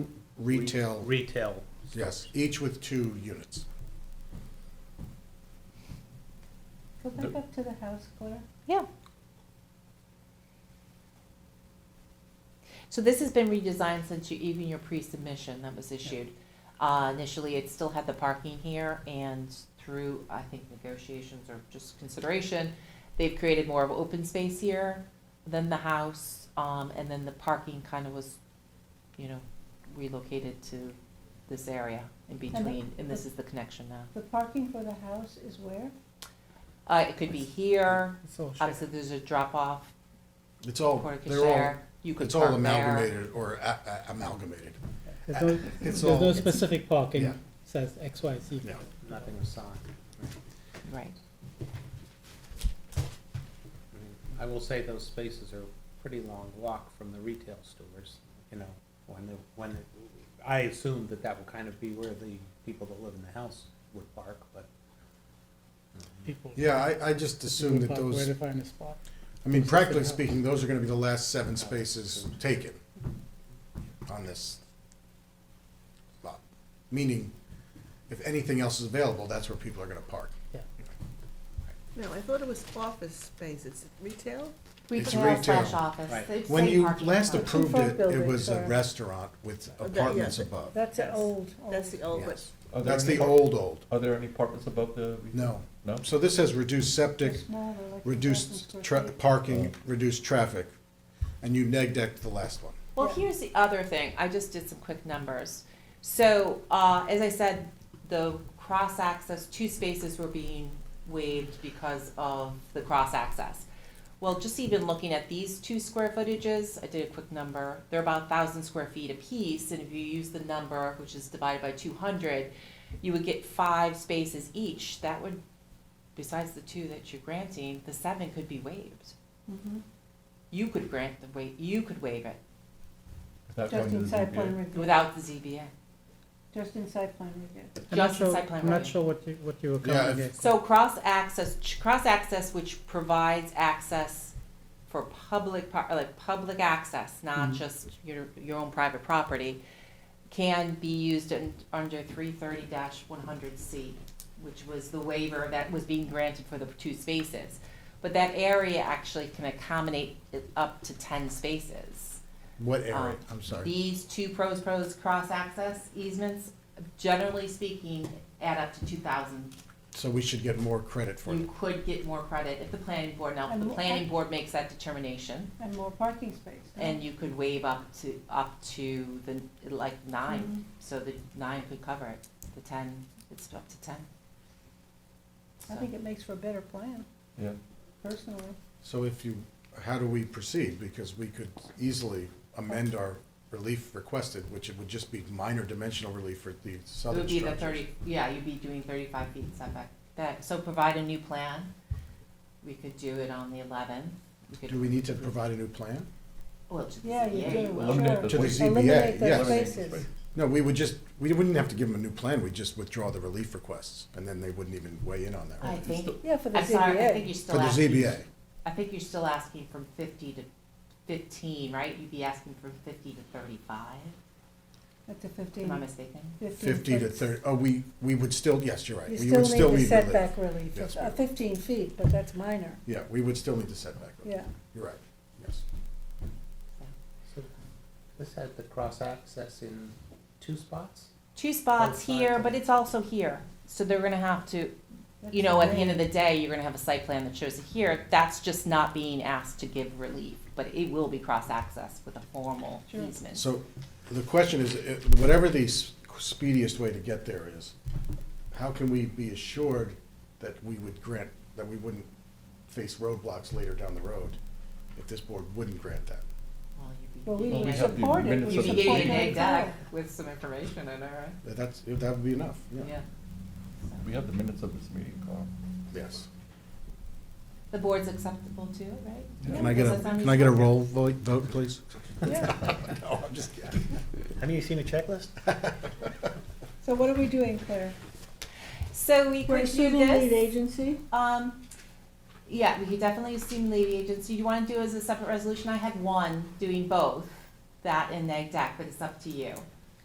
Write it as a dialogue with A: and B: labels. A: retail,
B: Retail.
A: yes, each with two units.
C: Go back
B: The-
C: up to the house, Claire.
D: Yeah. So this has been redesigned since you, even your pre-submission that was issued. Uh, initially, it still had the parking here and through, I think, negotiations or just consideration, they've created more of open space here than the house, um, and then the parking kind of was, you know, relocated to this area in between, and this is the connection now.
C: The parking for the house is where?
D: Uh, it could be here, obviously there's a drop-off
A: It's all,
D: Porta
A: they're all,
D: Cachere, you could
A: it's all
D: park there.
A: amalgamated or a- a- amalgamated.
E: There's no,
A: It's
E: there's no
A: all,
E: specific parking
A: Yeah.
E: says X, Y, Z.
A: yeah.
B: Nothing assigned.
D: Right.
B: I mean, I will say those spaces are a pretty long walk from the retail stores, you know, when the, when, it- I assume that that will kind of be where the people that live in the house would park, but.
E: People.
A: Yeah, I, I just assumed that
E: park Where
A: those,
E: to find a spot.
A: I mean, practically speaking, those are gonna be the last seven spaces taken on this lot. Meaning, if anything else is available, that's where people are gonna park.
F: No, I thought it was office space, it's retail?
A: It's
D: Retail slash
A: retail.
D: office.
B: Right.
D: It's
A: When
D: same
A: you
D: parking
A: last
D: lot.
A: approved
C: front
A: it, it
C: buildings
A: was a
C: are-
A: restaurant with
F: yeah,
A: apartments
F: the-
A: above.
C: That's an
F: Yes.
C: old, old.
F: That's the old, but
A: Yes.
G: Are there
A: That's
G: any
A: the
G: apart-
A: old, old,
G: Are there any apartments above the?
A: no.
G: No?
A: So this has reduced septic,
C: smaller, like a
A: reduced
C: thousand
A: tra-
C: square feet.
A: parking, reduced traffic, and you neg decked the last one.
D: Well,
C: Yeah.
D: here's the other thing. I just did some quick numbers. So, uh, as I said, the cross access, two spaces were being waived because of the cross access. Well, just even looking at these two square footages, I did a quick number. They're about thousand square feet apiece, and if you use the number, which is divided by two hundred, you would get five spaces each. That would, besides the two that you're granting, the seven could be waived.
C: Mhm.
D: You could grant the wa- you could waive it.
G: Without going
C: Just
G: to
C: in
G: the
C: side
G: ZBA?
C: plan review,
D: Without the ZBA.
C: just in side plan review.
E: I'm not
D: Just
E: sure-
D: site plan
E: I'm not
D: review.
E: sure what you, what you were
A: Yeah,
E: coming
A: if-
E: at.
D: So cross access, cross access which provides access for public, par- uh, like public access, not
E: Mhm.
D: just your, your own private property, can be used in, under three thirty one hundred C, which was the waiver that was being granted for the two spaces. But that area actually can accommodate it up to ten spaces.
A: What area?
D: Um,
A: I'm sorry.
D: These two pros pros cross-access easements, generally speaking, add up to two thousand.
A: So we should get more credit for it.
D: You could get more credit if the planning board, now, if the
C: And-
D: planning board makes that determination,
C: And more parking space. huh?
D: and you could waive up to, up to the, like, nine,
C: Mhm.
D: so the nine could cover it, the ten, it's up to ten.
C: I
D: So-
C: think it makes for a better plan,
G: Yeah.
C: personally.
A: So if you, how do we proceed? Because we could easily amend our relief requested, which it would just be minor dimensional relief for the
D: It
A: southern
D: would be the
A: structures.
D: thirty, yeah, you'd be doing thirty-five feet setback, that, so provide a new plan, we could do it on the eleventh, we could.
A: Do we need to provide a new plan?
D: Well, to the
C: Yeah, you
D: ZBA,
C: do,
D: will.
G: Eliminate
C: sure.
G: the
A: To the
G: waivers.
A: ZBA,
C: Eliminate
A: yes.
C: those
G: Eliminate the
C: spaces.
G: space.
A: No, we would just, we wouldn't have to give them a new plan, we'd just withdraw the relief requests, and then they wouldn't even weigh in on
D: I
A: that.
D: think,
C: Yeah, for the
D: I'm sorry, I
C: ZBA.
D: think
A: For
D: you're still
A: the
D: asking.
A: ZBA,
D: I think you're still asking from fifty to fifteen, right? You'd be asking from fifty to thirty-five,
C: At the
D: am I
C: fifteen.
D: mistaken?
A: fifty to
C: foot.
A: thirty, oh, we, we would still, yes, you're right.
C: You
A: We would
C: still need the
A: relief.
C: setback relief,
A: Yes,
C: It's,
A: we
C: uh,
A: do.
C: fifteen feet, but that's minor,
A: Yeah, we would still need the setback relief,
C: yeah.
A: you're right, yes.
B: So This had the cross access in two spots?
D: Two spots
B: Both sides
D: here,
B: of
D: but
B: it.
D: it's also here, so they're gonna have to, you know, at the end of the day, you're gonna have a site plan that shows it here. That's just not being asked to give relief, but it will be cross-access with a formal
C: Sure.
D: easement.
A: So the question is, eh, whatever the s- speediest way to get there is, how can we be assured that we would grant, that we wouldn't face roadblocks later down the road if this board wouldn't grant that?
D: Well,
C: Well, we
D: you'd be
G: Well,
C: need to
G: we
D: getting-
G: have the
C: support it.
G: minutes
C: We
D: You'd
G: of
D: be
C: should
G: the
C: support
D: getting an
G: meeting.
C: it.
D: egg deck with some information in it, right?
A: That- That's, that would be enough, yeah.
D: Yeah.
G: We
D: So-
G: have the minutes of this meeting, Carl.
A: Yes.
D: The board's acceptable to it, right?
A: Can I get a,
D: Does that sound
A: can I get a
D: reasonable?
A: roll vo- vote, please?
C: Yeah,
A: No, I'm just kidding.
B: Have you seen a checklist?
C: so what are we doing, Claire?
D: So we
C: We're
D: could do
C: assuming lead
D: this,
C: agency?
D: um, yeah, we could definitely assume lead agency, you wanna do it as a separate resolution, I had one doing both, that and neg deck, but it's up to you.